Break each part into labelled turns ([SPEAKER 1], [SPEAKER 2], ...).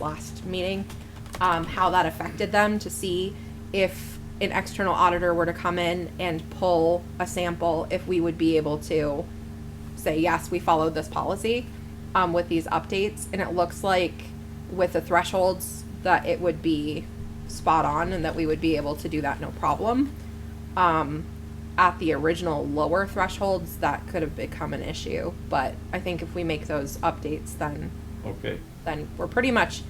[SPEAKER 1] last meeting, um, how that affected them to see if an external auditor were to come in and pull a sample, if we would be able to say, yes, we followed this policy, um, with these updates. And it looks like with the thresholds that it would be spot on and that we would be able to do that no problem. Um, at the original lower thresholds, that could have become an issue. But I think if we make those updates, then
[SPEAKER 2] Okay,
[SPEAKER 1] then we're pretty much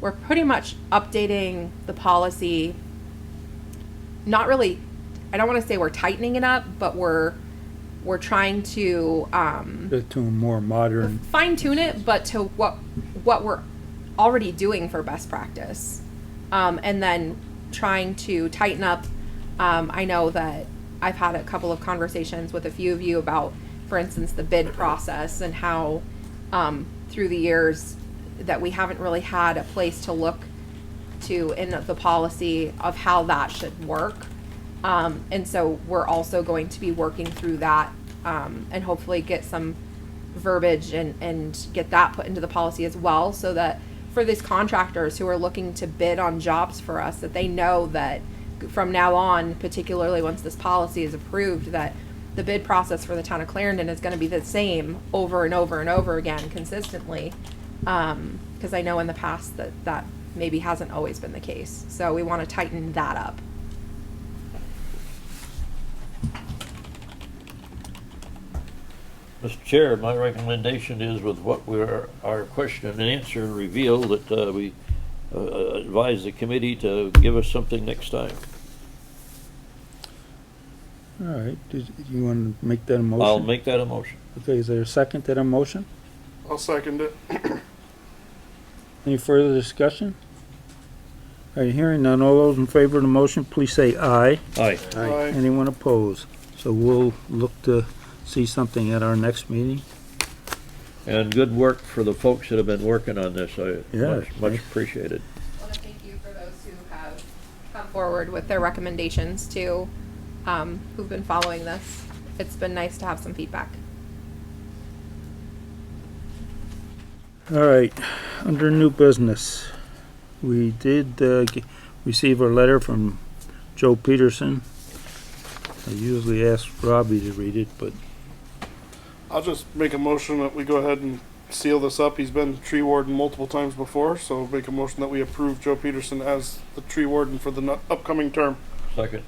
[SPEAKER 1] we're pretty much updating the policy not really i don't want to say we're tightening it up but we're we're trying to um,
[SPEAKER 3] to a more modern,
[SPEAKER 1] fine tune it but to what what we're already doing for best practice um, and then trying to tighten up um, i know that i've had a couple of conversations with a few of you about for instance the bid process and how um, through the years that we haven't really had a place to look to in the policy of how that should work. Um, and so we're also going to be working through that um, and hopefully get some verbiage and, and get that put into the policy as well so that for these contractors who are looking to bid on jobs for us that they know that from now on particularly once this policy is approved that the bid process for the town of clarendon is going to be the same over and over and over again consistently because Um, I know in the past that that maybe hasn't always been the case. So we want to tighten that up.
[SPEAKER 2] Mr. Chair, my recommendation is with what we're, our question and answer reveal that uh, we uh, advise the committee to give us something next time.
[SPEAKER 3] all right, did you want to make that a motion?
[SPEAKER 2] I'll make that a motion.
[SPEAKER 3] Okay, is there a second to that motion?
[SPEAKER 4] I'll second it.
[SPEAKER 3] Any further discussion? All right, hearing none, all those in favor of the motion, please say aye.
[SPEAKER 2] Aye.
[SPEAKER 4] Aye.
[SPEAKER 3] Anyone opposed? So we'll look to see something at our next meeting.
[SPEAKER 2] And good work for the folks that have been working on this. I
[SPEAKER 3] Yeah.
[SPEAKER 2] much, much appreciated.
[SPEAKER 1] I want to thank you for those who have come forward with their recommendations too, um, who've been following this. It's been nice to have some feedback.
[SPEAKER 3] All right, under new business, we did, uh, g- receive a letter from Joe Peterson. I usually ask Robbie to read it, but
[SPEAKER 4] I'll just make a motion that we go ahead and seal this up. He's been tree warden multiple times before, so make a motion that we approve Joe Peterson as the tree warden for the nu- upcoming term.
[SPEAKER 2] Second.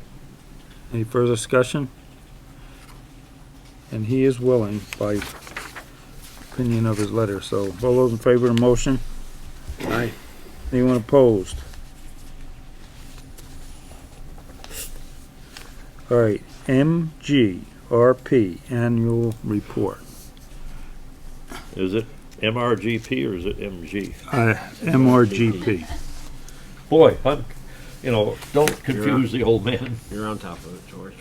[SPEAKER 3] Any further discussion? And he is willing by opinion of his letter, so all those in favor of the motion? Aye. Anyone opposed? All right, MGRP Annual Report.
[SPEAKER 2] Is it MRGP or is it MG?
[SPEAKER 3] Uh, MRGP.
[SPEAKER 2] Boy, I'm, you know, don't confuse the old man.
[SPEAKER 5] You're on top of it, George.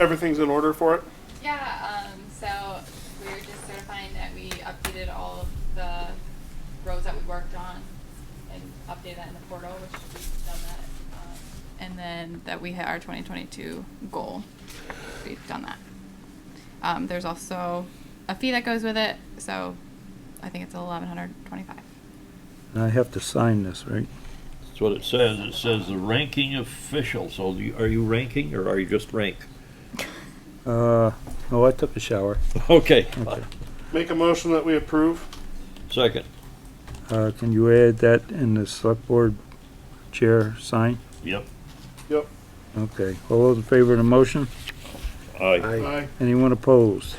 [SPEAKER 4] Everything's in order for it.
[SPEAKER 6] Yeah, um, so we were just certifying that we updated all of the roads that we worked on and updated that in the portal, which we've done that. Um, and then that we hit our 2022 goal. We've done that. Um, there's also a fee that goes with it, so I think it's 1125
[SPEAKER 3] And I have to sign this, right?
[SPEAKER 2] That's what it says. It says the ranking official. So you- are you ranking or are you just rank?
[SPEAKER 3] Uh, oh, I took a shower.
[SPEAKER 2] Okay.
[SPEAKER 4] Make a motion that we approve.
[SPEAKER 2] Second.
[SPEAKER 3] Uh, can you add that in the select board chair sign?
[SPEAKER 2] Yep.
[SPEAKER 4] Yep.
[SPEAKER 3] Okay, all those in favor of the motion?
[SPEAKER 2] Aye.
[SPEAKER 4] Aye.
[SPEAKER 3] Anyone opposed?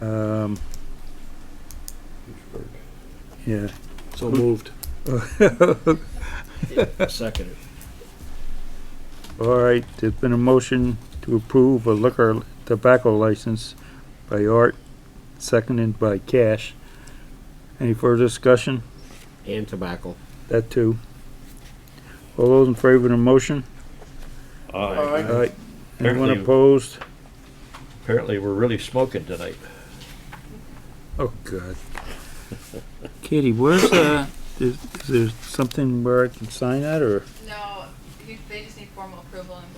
[SPEAKER 3] Um, yeah.
[SPEAKER 5] So moved.
[SPEAKER 3] All
[SPEAKER 5] Second.
[SPEAKER 3] right, there's been a motion to approve a liquor tobacco license by Art, seconded by Cash. Any further discussion?
[SPEAKER 5] And tobacco.
[SPEAKER 3] That too. All those in favor of the motion?
[SPEAKER 4] Aye.
[SPEAKER 3] Aye. Anyone
[SPEAKER 2] Apparently-
[SPEAKER 3] opposed?
[SPEAKER 2] Apparently, we're really smoking tonight.
[SPEAKER 3] Oh, God. Katie, where's, uh, is, is there something where I can sign that, or?
[SPEAKER 6] No, you, they just need formal approval and